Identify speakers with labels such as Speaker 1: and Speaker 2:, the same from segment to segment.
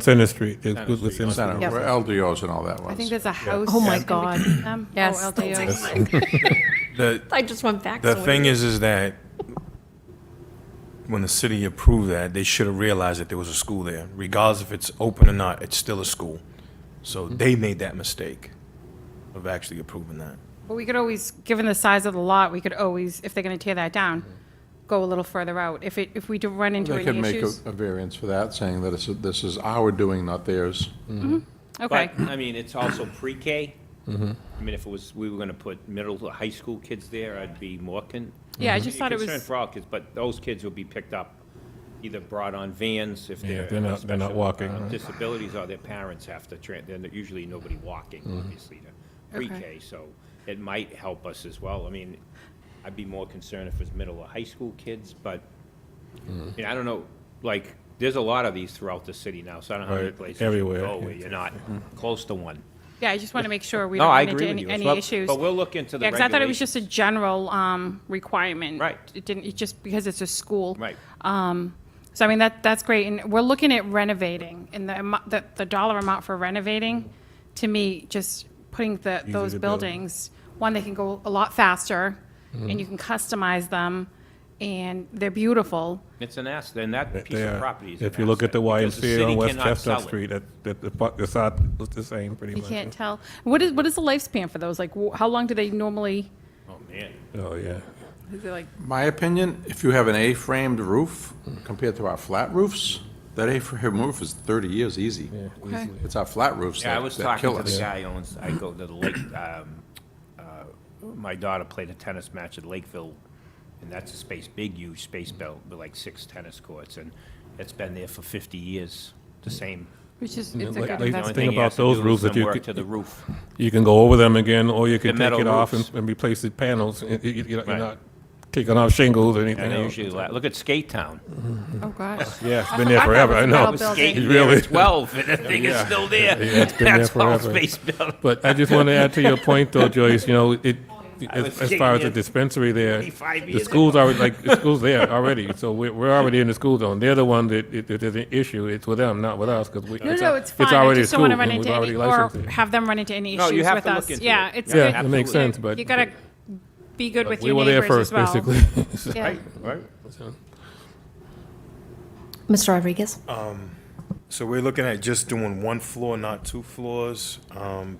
Speaker 1: Center Street, there's Goodwood Center
Speaker 2: Center,
Speaker 1: Street.
Speaker 3: Yep.
Speaker 2: where LDOs and all that
Speaker 3: I
Speaker 2: was.
Speaker 3: think there's a house.
Speaker 4: Oh my
Speaker 3: in between
Speaker 4: God.
Speaker 3: them. Oh,
Speaker 4: Yes.
Speaker 3: LDOs.
Speaker 5: The,
Speaker 4: I just went back.
Speaker 5: the
Speaker 4: so
Speaker 5: thing is, is that when the city approved that, they should have realized that there was a school there. Regardless if it's open or not, it's still a school. So they made that mistake of actually approving that.
Speaker 3: But we could always, given the size of the lot, we could always, if they're going to tear that down,
Speaker 6: Mm-hmm.
Speaker 3: go a little further out. If it, if we do run into
Speaker 2: They
Speaker 3: any
Speaker 2: could make
Speaker 3: issues.
Speaker 2: a a variance for that, saying that it's- this is our doing, not theirs.
Speaker 3: Okay,
Speaker 6: But, I mean, it's also pre-K. I mean, if it was, we were gonna put middle to high school kids there, I'd be more con.
Speaker 3: Yeah, I
Speaker 6: I'd
Speaker 3: just
Speaker 6: be
Speaker 3: thought it
Speaker 6: concerned
Speaker 3: was-
Speaker 6: For all kids, but those kids will be picked up, either brought on vans if
Speaker 1: Yeah,
Speaker 6: they're.
Speaker 1: they're not- they're not
Speaker 6: special uh,
Speaker 1: walking.
Speaker 6: Disabilities or their parents have to, tran- then they're usually nobody walking,
Speaker 1: Mm-hmm.
Speaker 6: obviously, to
Speaker 3: Okay.
Speaker 6: pre-K, so it might help us as well. I mean, I'd be more concerned if it was middle or high school kids, but,
Speaker 1: Mm.
Speaker 6: you know, I don't know, like, there's a lot of these throughout the city now, so I don't know how many
Speaker 1: Right,
Speaker 6: places you
Speaker 1: everywhere, Mm-hmm.
Speaker 6: go
Speaker 1: yeah.
Speaker 6: where you're not close to one.
Speaker 3: yeah, I just want to make sure we
Speaker 6: No,
Speaker 3: don't
Speaker 6: I
Speaker 3: run into
Speaker 6: agree with
Speaker 3: any,
Speaker 6: you.
Speaker 3: any
Speaker 6: Well,
Speaker 3: issues.
Speaker 6: But we'll look into the
Speaker 3: Yeah, because I thought it was
Speaker 6: regulations.
Speaker 3: just a general um, requirement.
Speaker 6: Right.
Speaker 3: It didn't, it just because it's a school.
Speaker 6: Right.
Speaker 3: Um, So I mean, that, that's great, and we're looking at renovating, and the, amo- the, the dollar amount for renovating, to me, just putting the, those
Speaker 1: to build. Mm-hmm.
Speaker 3: buildings, one, they can go a lot faster, and you can customize them, and they're beautiful.
Speaker 6: It's an asset, and that piece
Speaker 1: They
Speaker 6: of
Speaker 1: are-
Speaker 6: property is an
Speaker 1: If you look at the
Speaker 6: asset, because
Speaker 1: YMCA
Speaker 6: city
Speaker 1: on West
Speaker 6: cannot
Speaker 1: Chestnut
Speaker 6: sell it.
Speaker 1: Street, that, that, the part- the side looks the same pretty
Speaker 3: You
Speaker 1: much.
Speaker 3: can't tell. What is, what is the lifespan for those? Like, wh- how long do they normally,
Speaker 6: Oh, man.
Speaker 1: Oh, yeah.
Speaker 3: is it like,
Speaker 2: My opinion, if you have an A-framed roof compared to our flat roofs, that A-frame roof is 30 years easy.
Speaker 3: Okay.
Speaker 2: It's our flat roofs
Speaker 6: Yeah, I
Speaker 2: that
Speaker 6: was
Speaker 2: that
Speaker 6: talking
Speaker 2: kill
Speaker 6: to the
Speaker 2: us.
Speaker 6: guy owns, I go to the lake, um, uh, my daughter played a tennis match at Lakeville, and that's a space, big, huge space belt with like six tennis courts, and it's been there for 50 years, the same.
Speaker 3: which is, it's a
Speaker 1: like- like-
Speaker 3: good
Speaker 6: The only
Speaker 1: thing
Speaker 3: investment.
Speaker 6: thing he
Speaker 1: about
Speaker 6: has to
Speaker 1: those
Speaker 6: do is
Speaker 1: roofs that
Speaker 6: some
Speaker 1: you
Speaker 6: work
Speaker 1: could-
Speaker 6: To the roof.
Speaker 1: You can go over them again, or you can
Speaker 6: The
Speaker 1: take
Speaker 6: metal
Speaker 1: it off
Speaker 6: roofs.
Speaker 1: and, and replace the panels. You- you- You're not- you're
Speaker 6: Right.
Speaker 1: not taking off shingles or anything
Speaker 6: And they
Speaker 1: else.
Speaker 6: usually, la- look at Skate Town.
Speaker 3: Oh, gosh.
Speaker 1: Yeah, it's been there forever, I know.
Speaker 3: metal building.
Speaker 6: Skate
Speaker 1: It
Speaker 6: there
Speaker 1: really-
Speaker 6: at 12, and the thing is
Speaker 1: Yeah.
Speaker 6: still there.
Speaker 1: Yeah, it's been there
Speaker 6: That's all
Speaker 1: forever.
Speaker 6: space belt.
Speaker 1: But I just want to add to your point though, Joyce, you know, it, as,
Speaker 6: was
Speaker 1: as far as the
Speaker 6: thinking
Speaker 1: dispensary there,
Speaker 6: 25
Speaker 1: the
Speaker 6: years
Speaker 1: school's already, like, the school's there already, so we're, we're already in the school zone. They're the one that, if if there's an issue, it's with them, not with us, because we.
Speaker 3: No,
Speaker 1: al-
Speaker 3: no, it's fine. I
Speaker 1: already a
Speaker 3: just don't want to
Speaker 1: school,
Speaker 3: run
Speaker 1: and
Speaker 3: into
Speaker 1: we've
Speaker 3: any,
Speaker 1: already
Speaker 3: or
Speaker 1: licensed it.
Speaker 3: have them run into any
Speaker 6: No,
Speaker 3: issues
Speaker 6: you have
Speaker 3: with
Speaker 6: to look
Speaker 3: us.
Speaker 6: into
Speaker 3: Yeah,
Speaker 6: it.
Speaker 3: it's
Speaker 1: Yeah,
Speaker 3: good.
Speaker 1: it makes
Speaker 3: You-
Speaker 1: sense, but-
Speaker 3: You gotta be good with
Speaker 1: We
Speaker 3: your
Speaker 1: were there
Speaker 3: neighbors as
Speaker 1: first,
Speaker 3: well.
Speaker 1: basically. So-
Speaker 3: Yeah.
Speaker 6: Right.
Speaker 4: Mr. Rodriguez?
Speaker 5: So we're looking at just doing one floor, not two floors. Um,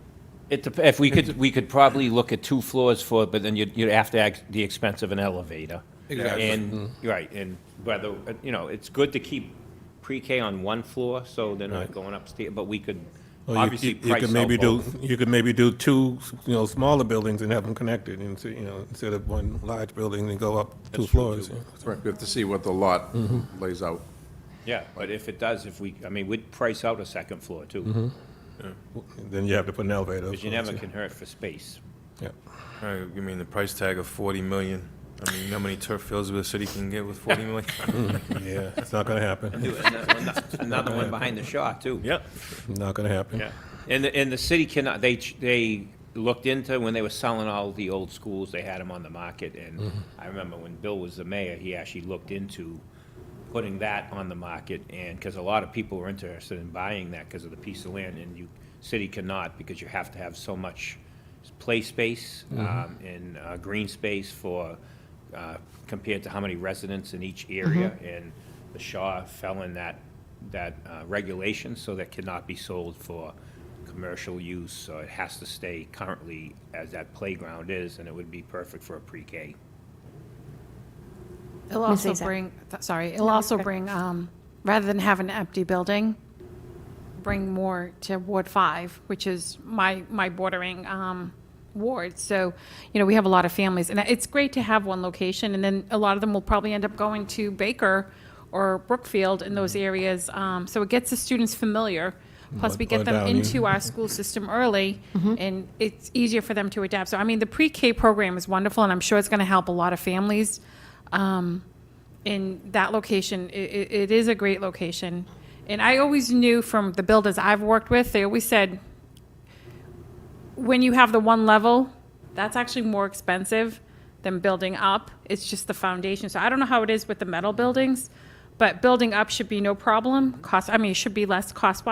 Speaker 6: It, dep- if we could, we could probably look at two floors for, it, but then you'd, you'd have to act the expense of an elevator.
Speaker 2: Exactly.
Speaker 6: And,
Speaker 1: Mm-hmm.
Speaker 6: right, and whether, uh, you know, it's good to keep pre-K on one floor, so they're not going upstairs, but we could
Speaker 1: Or you-
Speaker 6: obviously
Speaker 1: you- you
Speaker 6: price
Speaker 1: could
Speaker 6: out
Speaker 1: maybe do,
Speaker 6: both.
Speaker 1: you could maybe do two, you know, smaller buildings and have them connected, and, so, you know, instead of one large building and go up two floors.
Speaker 2: Right, We have to see what the lot lays out.
Speaker 6: Yeah, but if it does, if we, I mean, we'd price out a second floor
Speaker 1: Mm-hmm.
Speaker 6: too,
Speaker 1: Then you have to put an elevator.
Speaker 6: because you never can hurt for space.
Speaker 1: Yeah.
Speaker 5: all right, Uh, you mean the price tag of 40 million? I mean, you know how many turf fields the city can get with 40 million?
Speaker 1: Yeah, it's not gonna happen,
Speaker 6: Another one behind the Shaw too.
Speaker 5: Yep.
Speaker 1: not gonna happen.
Speaker 6: Yeah, and the, and the city cannot, they, ch- they looked into, when they were selling all the old schools, they had them on the market, and I remember when Bill was the mayor, he actually looked into putting that on the market, and, because a lot of people were interested in buying that because of the piece of land, and you, city cannot, because you have to have so much play space, um, and, uh, green space for, uh, compared to how many residents in each area, and the Shaw fell in that, that, uh, regulation, so that cannot be sold for commercial use, so it has to stay currently as that playground is, and it would be perfect for a pre-K.
Speaker 3: It'll
Speaker 4: Miss
Speaker 3: also
Speaker 4: Azak.
Speaker 3: bring, th- sorry, it'll also bring, um, rather than have an empty building, bring more to Ward Five, which is my, my bordering, um, ward. So, you know, we have a lot of families and it's great to have one location and then a lot of them will probably end up going to Baker or Brookfield in those areas. Um, so it gets the students familiar. Plus we
Speaker 1: Or-
Speaker 3: get
Speaker 1: or
Speaker 3: them
Speaker 1: Downey.
Speaker 3: into our school system early and it's easier for them to adapt. So I mean, the pre-K program is wonderful and I'm sure it's going to help a lot of families um, in that location, i- i it is a great location. And I always knew from the builders I've worked with, they always said, when you have the one level, that's actually more expensive than building up. It's just the foundation. So I don't know how it is with the metal buildings, but building up should be no problem. Cost, I mean, it should be less cost